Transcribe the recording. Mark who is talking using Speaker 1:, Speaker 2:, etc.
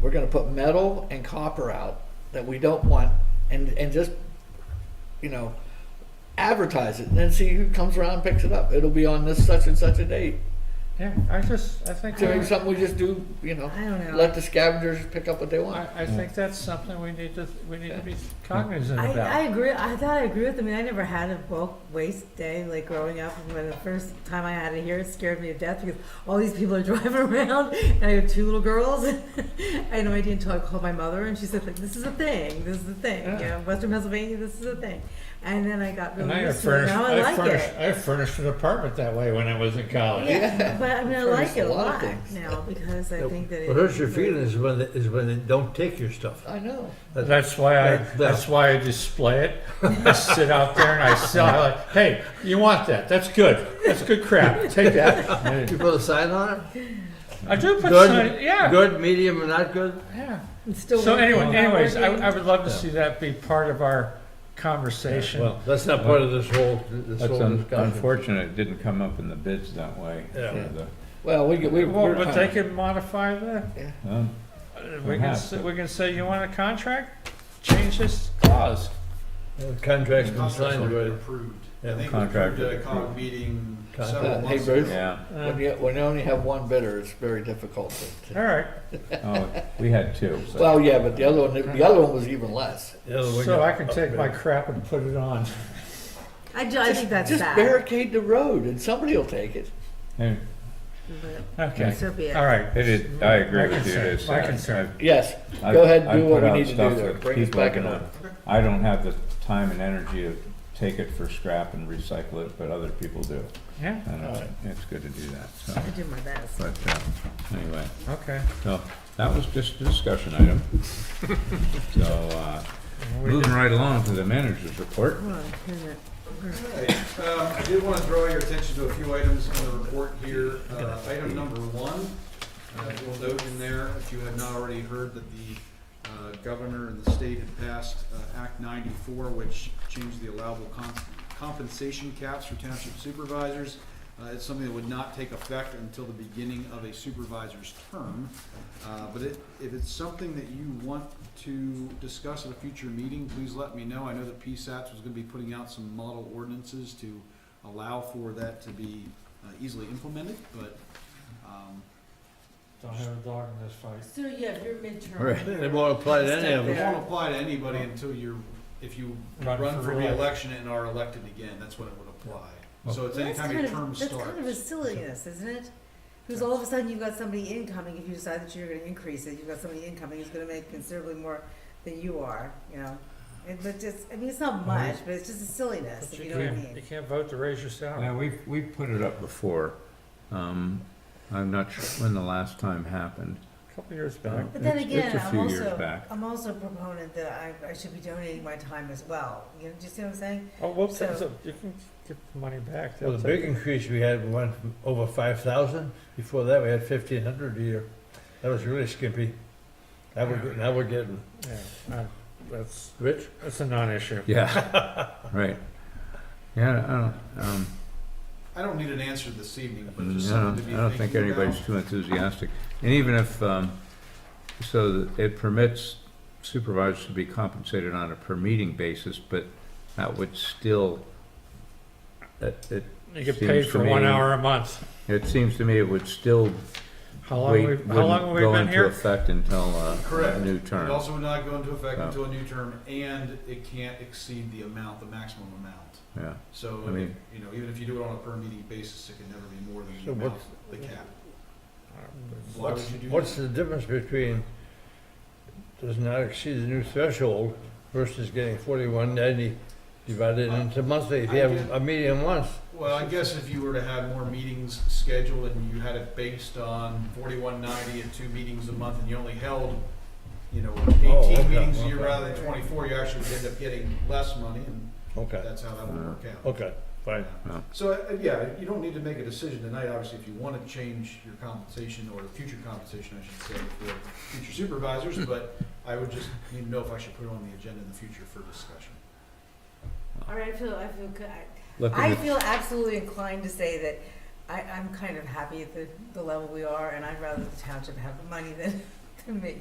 Speaker 1: we're gonna put metal and copper out that we don't want and, and just, you know, advertise it and then see who comes around and picks it up. It'll be on this such and such a date.
Speaker 2: Yeah, I just, I think,
Speaker 1: So maybe
Speaker 2: that-
Speaker 1: something we just do, you know,
Speaker 3: I don't know.
Speaker 1: let the scavengers pick up what they want.
Speaker 2: I, I think that's something we need to, we need to be cognizant
Speaker 3: I, I
Speaker 2: about.
Speaker 3: agree. I thought I agree with them. I mean, I never had a bulk waste day like growing up. And when the first time I had it here, it scared me to death because all these people are driving around, and I have two little girls. I had no idea until I called my mother, and she said, "Like this is a thing. This is a thing.
Speaker 2: Yeah.
Speaker 3: You know, Western Pennsylvania, this is a thing." And then I got
Speaker 2: And
Speaker 3: really
Speaker 2: I
Speaker 3: used to it.
Speaker 2: furnished,
Speaker 3: Now I
Speaker 2: I
Speaker 3: like
Speaker 2: furnished,
Speaker 3: it.
Speaker 2: I furnished an apartment that way when I was in college.
Speaker 3: Yeah, but I mean, I like it
Speaker 1: Furnished a
Speaker 3: a
Speaker 1: lot of
Speaker 3: lot
Speaker 1: things.
Speaker 3: now because I
Speaker 4: It
Speaker 3: think that it
Speaker 4: hurts your
Speaker 3: it's very-
Speaker 4: feelings is when, they- is when they don't take your stuff.
Speaker 1: I know.
Speaker 2: That's why I,
Speaker 4: Yeah.
Speaker 2: that's why I display it. I sit out there and I sell, I like, hey, you want that? That's good. That's good crap. Take that.
Speaker 4: You put a sign on it?
Speaker 2: I do put
Speaker 4: Good.
Speaker 2: sign, yeah,
Speaker 4: Good, medium, and not good?
Speaker 2: yeah.
Speaker 3: It's still
Speaker 2: So
Speaker 3: working.
Speaker 2: anyway, anyways, I,
Speaker 3: Working.
Speaker 2: I would love to
Speaker 4: Yeah.
Speaker 2: see that be part of our conversation.
Speaker 4: Well, that's not part of this whole, this
Speaker 5: That's
Speaker 4: whole
Speaker 5: un-
Speaker 4: discussion.
Speaker 5: unfortunate, it didn't come up in the bids that way.
Speaker 4: Yeah.
Speaker 5: for the-
Speaker 1: Well, we, we,
Speaker 2: Well,
Speaker 1: we're.
Speaker 2: but they can modify that.
Speaker 5: huh?
Speaker 2: Uh, We can, s-
Speaker 5: Perhaps, but-
Speaker 2: we can say, you want a contract? Change this clause.
Speaker 4: The Contract's been
Speaker 6: Contract's
Speaker 4: signed
Speaker 6: already
Speaker 4: already.
Speaker 6: Approved.
Speaker 4: Yeah.
Speaker 6: I think it was
Speaker 5: Contract
Speaker 6: approved at a
Speaker 5: is
Speaker 6: COG
Speaker 5: approved.
Speaker 6: meeting
Speaker 4: Contract.
Speaker 6: several
Speaker 1: Uh, hey,
Speaker 6: months
Speaker 1: Bruce?
Speaker 6: ago.
Speaker 5: Yeah,
Speaker 1: When
Speaker 2: Uh,
Speaker 1: you, when you only have one bidder, it's very difficult to.
Speaker 2: All right,
Speaker 5: oh, we had two, so-
Speaker 1: Well, yeah, but the other one, the other one was even less.
Speaker 4: The
Speaker 5: Oh,
Speaker 4: other way
Speaker 2: so I
Speaker 4: down.
Speaker 2: can take my crap and put it on.
Speaker 3: I, ju- I think that's
Speaker 1: Just
Speaker 3: sad.
Speaker 1: barricade the road and somebody will take it.
Speaker 5: Hey,
Speaker 3: but
Speaker 2: Okay,
Speaker 3: so be it.
Speaker 2: all right.
Speaker 5: It is, I
Speaker 2: My
Speaker 5: agree with you,
Speaker 2: concern,
Speaker 5: it's. uh,
Speaker 2: my
Speaker 5: I-
Speaker 2: concern.
Speaker 1: Yes,
Speaker 5: I-
Speaker 1: go ahead and
Speaker 5: I
Speaker 1: do what
Speaker 5: put
Speaker 1: we
Speaker 5: out
Speaker 1: need to
Speaker 5: stuff
Speaker 1: do there,
Speaker 5: that
Speaker 1: bring us
Speaker 5: people are
Speaker 1: back in
Speaker 5: gonna-
Speaker 1: line.
Speaker 5: I don't have the time and energy to take it for scrap and recycle it, but other people do.
Speaker 2: Yeah,
Speaker 5: And uh, it's good to do that, so,
Speaker 3: I do my best.
Speaker 5: but, uh, anyway,
Speaker 2: okay.
Speaker 5: so, that was just a discussion item. So, uh, moving right along to the manager's report.
Speaker 3: Hold on, here's it.
Speaker 6: Alright, um, I did want to draw your attention to a few items on the report here. Uh, Item number one, uh, you'll note in there, if you have not already heard, that the uh, governor and the state had passed uh, Act 94, which changed the allowable con- compensation caps for township supervisors. Uh, It's something that would not take effect until the beginning of a supervisor's term. Uh, But it- if it's something that you want to discuss at a future meeting, please let me know. I know that PSATS was going to be putting out some model ordinances to allow for that to be uh, easily implemented, but um,
Speaker 2: Don't have a dog in this fight.
Speaker 3: So yeah, your midterm.
Speaker 4: Right, they won't apply to any of
Speaker 6: it
Speaker 4: us.
Speaker 6: won't apply to anybody until you're, if you run for reelection and are elected again, that's when it would apply. So it's
Speaker 3: That's
Speaker 6: anytime
Speaker 3: kind
Speaker 6: your
Speaker 3: of,
Speaker 6: term
Speaker 3: that's kind of a
Speaker 6: starts.
Speaker 3: silliness, isn't it? Because all of a sudden you've got somebody incoming, if you decide that you're gonna increase it, you've got somebody incoming who's gonna make considerably more than you are, you know? It, but just, I mean, it's not much, but it's just a silliness, if you know what I
Speaker 2: You
Speaker 3: mean.
Speaker 2: can't vote to raise your salary.
Speaker 5: Yeah, we've, we've put it up before. Um, I'm not sure when the last time happened.
Speaker 2: A Couple years back.
Speaker 3: But then
Speaker 5: It's-
Speaker 3: again,
Speaker 5: It's a
Speaker 3: I'm
Speaker 5: few years
Speaker 3: also,
Speaker 5: back.
Speaker 3: I'm also a proponent that I, I should be donating my time as well, you know, do you see what I'm saying?
Speaker 2: Oh, well,
Speaker 3: So-
Speaker 2: so you can get the money back.
Speaker 4: Well,
Speaker 2: They'll
Speaker 4: the
Speaker 2: take
Speaker 4: big increase we had went from over five thousand, before that we had fifteen hundred a year. That was really skimpy. Now we're, now we're getting
Speaker 2: it. Yeah, uh, That's,
Speaker 4: rich.
Speaker 2: that's a non-issue.
Speaker 5: Yeah, right. Yeah, I don't, um,
Speaker 6: I don't need an answer this evening,
Speaker 5: I
Speaker 6: but it's just
Speaker 5: don't,
Speaker 6: something to
Speaker 5: I
Speaker 6: be
Speaker 5: don't think
Speaker 6: thinking about.
Speaker 5: anybody's too enthusiastic. And even if, um, so that it permits supervisors to be compensated on a per meeting basis, but that would still, it, it,
Speaker 2: You get
Speaker 5: Seems
Speaker 2: paid
Speaker 5: to
Speaker 2: for one
Speaker 5: me-
Speaker 2: hour a month.
Speaker 5: it seems to me it would still
Speaker 2: How long,
Speaker 5: wait,
Speaker 2: we've- how long have
Speaker 5: wouldn't
Speaker 2: we
Speaker 5: go
Speaker 2: been
Speaker 5: into
Speaker 2: here?
Speaker 5: effect until, uh, a
Speaker 6: Correct.
Speaker 5: new
Speaker 6: It
Speaker 5: term.
Speaker 6: also would not go into effect
Speaker 5: No.
Speaker 6: until a new term, and it can't exceed the amount, the maximum amount.
Speaker 5: Yeah.
Speaker 6: So,
Speaker 5: I mean-
Speaker 6: you know, even if you do it on a per meeting basis, it can never be more than
Speaker 4: So
Speaker 6: the amount,
Speaker 4: what's-
Speaker 6: the cap.
Speaker 2: Uh,
Speaker 6: Why would
Speaker 4: What's,
Speaker 6: you do
Speaker 4: what's
Speaker 6: that?
Speaker 4: the difference between does not exceed the new threshold versus getting forty-one ninety divided into monthly? If you have a medium once,
Speaker 6: Well, I guess if you were to have more meetings scheduled and you had it based on forty-one ninety and two meetings a month, and you only held, you know,
Speaker 4: Oh, okay,
Speaker 6: eighteen meetings a year
Speaker 4: okay.
Speaker 6: rather than twenty-four, you actually would end up getting less money, and
Speaker 4: okay,
Speaker 6: that's how that would work out.
Speaker 4: okay, fine.
Speaker 5: Yeah.
Speaker 6: So, uh, yeah, you don't need to make a decision tonight, obviously, if you want to change your compensation or future compensation, I should say, for future supervisors, but I would just need to know if I should put it on the agenda in the future for discussion.
Speaker 3: All right, I feel, I feel good,
Speaker 5: Looking
Speaker 3: I
Speaker 5: at-
Speaker 3: feel absolutely inclined to say that I, I'm kind of happy at the, the level we are, and I'd rather the township have the money than, than me.